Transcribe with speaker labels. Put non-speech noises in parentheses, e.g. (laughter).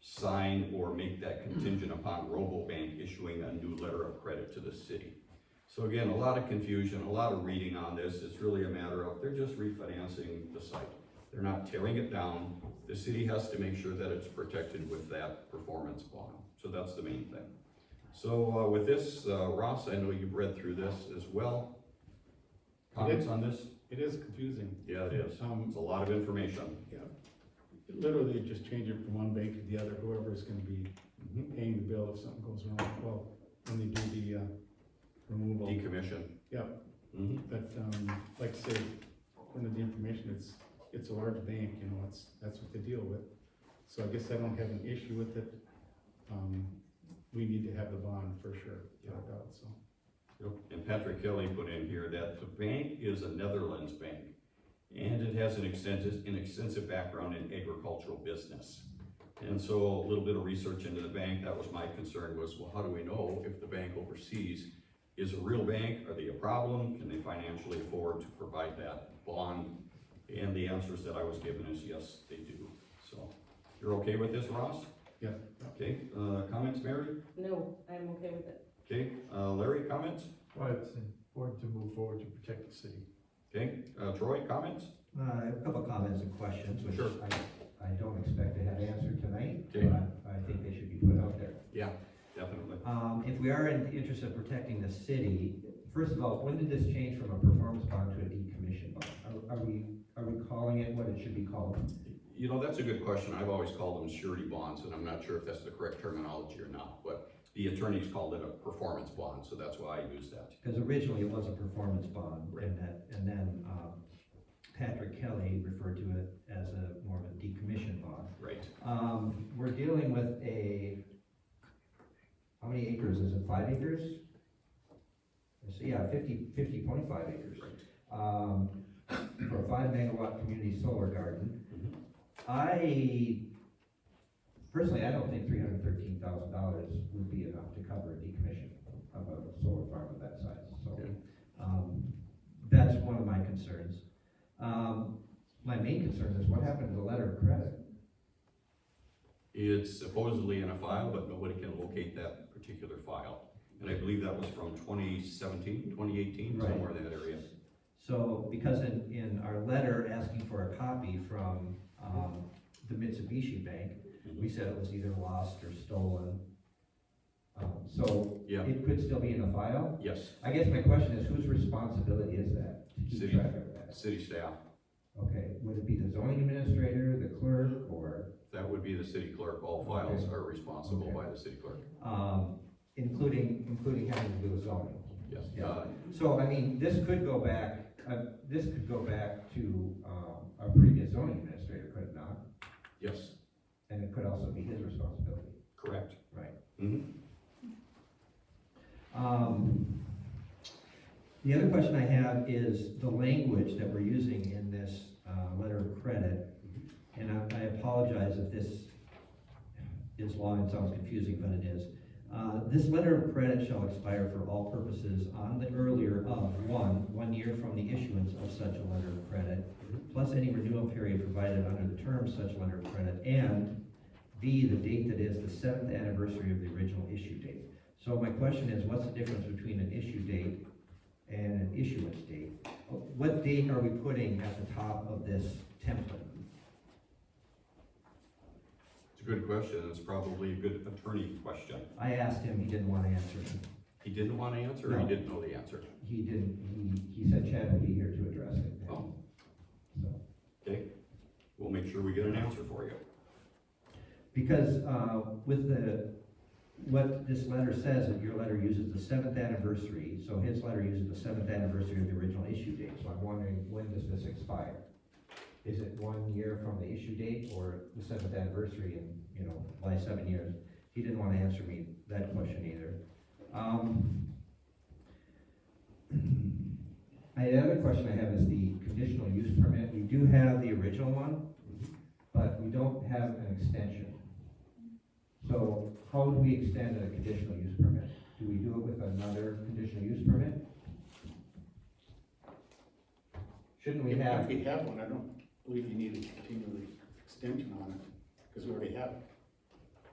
Speaker 1: sign or make that contingent upon RoboBank issuing a new letter of credit to the city. So again, a lot of confusion, a lot of reading on this, it's really a matter of, they're just refinancing the site. They're not tearing it down, the city has to make sure that it's protected with that performance bond, so that's the main thing. So uh, with this, uh, Ross, I know you've read through this as well. Comments on this?
Speaker 2: It is confusing.
Speaker 1: Yeah, it is,
Speaker 2: Um,
Speaker 1: it's a lot of information.
Speaker 2: yeah, literally just change it from one bank to the other, whoever's gonna be
Speaker 1: Mm-hmm.
Speaker 2: paying the bill if something goes wrong, well, when they do the, uh, removal.
Speaker 1: Decommission.
Speaker 2: Yep,
Speaker 1: Mhm.
Speaker 2: but, um, like I say, according to the information, it's, it's a large bank, you know, it's, that's what they deal with. So I guess I don't have an issue with it. Um, we need to have the bond for sure, no doubt, so.
Speaker 1: Yep. And Patrick Kelly put in here that the bank is a Netherlands bank, and it has an extensive, an extensive background in agricultural business. And so a little bit of research into the bank, that was my concern, was, well, how do we know if the bank overseas is a real bank, are they a problem, can they financially afford to provide that bond? And the answers that I was given is yes, they do, so, you're okay with this, Ross?
Speaker 2: Yeah.
Speaker 1: Okay, uh, comments, Mary?
Speaker 3: No, I'm okay with it.
Speaker 1: Okay, uh, Larry, comments?
Speaker 4: Well, it's important to move forward to protect the city.
Speaker 1: Okay, uh, Troy, comments?
Speaker 5: Uh, I have a couple of comments and questions, which
Speaker 1: Sure.
Speaker 5: I, I don't expect to have answered tonight,
Speaker 1: Okay.
Speaker 5: but I think they should be put out there.
Speaker 1: Yeah, definitely.
Speaker 5: Um, if we are in the interest of protecting the city, first of all, when did this change from a performance bond to a decommission bond? Are, are we, are we calling it what it should be called?
Speaker 1: You know, that's a good question. I've always called them surety bonds, and I'm not sure if that's the correct terminology or not, but the attorneys called it a performance bond, so that's why I use that.
Speaker 5: Because originally it was a performance bond,
Speaker 1: Right.
Speaker 5: and that, and then, um, Patrick Kelly referred to it as a, more of a decommission bond.
Speaker 1: Right.
Speaker 5: Um, we're dealing with a, how many acres is it, five acres? So, yeah, fifty, fifty point five acres.
Speaker 1: Right.
Speaker 5: Um, for a five megawatt community solar garden. I, personally, I don't think three hundred thirteen thousand dollars would be enough to cover a decommission of a solar farm of that size, so.
Speaker 1: Okay.
Speaker 5: Um, that's one of my concerns. Um, my main concern is what happened to the letter of credit?
Speaker 1: It's supposedly in a file, but nobody can locate that particular file. And I believe that was from 2017, 2018,
Speaker 5: Right.
Speaker 1: somewhere in that area.
Speaker 5: So, because in, in our letter asking for a copy from, um, the Mitsubishi Bank,
Speaker 1: Mm-hmm.
Speaker 5: we said it was either lost or stolen. Um, so
Speaker 1: Yeah,
Speaker 5: it could still be in the file.
Speaker 1: yes,
Speaker 5: I guess my question is, whose responsibility is that? to keep
Speaker 1: City.
Speaker 5: track of that?
Speaker 1: city staff.
Speaker 5: Okay, would it be the zoning administrator, the clerk, or,
Speaker 1: That would be the city clerk. All files are responsible by the city clerk.
Speaker 5: um, including, including having to do with zoning?
Speaker 1: Yes.
Speaker 5: Yeah.
Speaker 1: Uh,
Speaker 5: So, I mean, this could go back, uh, this could go back to, um, our previous zoning administrator, could it not?
Speaker 1: Yes,
Speaker 5: And it could also be his responsibility.
Speaker 1: correct.
Speaker 5: Right.
Speaker 1: Mhm.
Speaker 5: Um, the other question I have is the language that we're using in this, uh, letter of credit. And I, I apologize if this is long and sounds confusing, but it is. Uh, this letter of credit shall expire for all purposes on the earlier of, one, one year from the issuance of such a letter of credit, plus any renewal period provided under the terms such letter of credit, and B, the date that is the seventh anniversary of the original issue date. So my question is, what's the difference between an issue date and an issuance date? What date are we putting at the top of this template?
Speaker 1: It's a good question. It's probably a good attorney question.
Speaker 5: I asked him, he didn't want to answer.
Speaker 1: He didn't want to answer, or he
Speaker 5: No.
Speaker 1: didn't know the answer?
Speaker 5: He didn't, he, he said Chad will be here to address it.
Speaker 1: Oh.
Speaker 5: So.
Speaker 1: Okay, we'll make sure we get an answer for you.
Speaker 5: Because uh, with the, what this letter says, that your letter uses the seventh anniversary, so his letter uses the seventh anniversary of the original issue date. So I'm wondering, when does this expire? Is it one year from the issue date or the seventh anniversary and, you know, by seven years? He didn't want to answer me that question either. Um, (clears throat) I- The other question I have is the conditional use permit. We do have the original one but we don't have an extension. So how would we extend a conditional use permit? Do we do it with another conditional use permit? Shouldn't we have,
Speaker 2: we have one, I don't believe you need to continue the extension on it, because we already have it.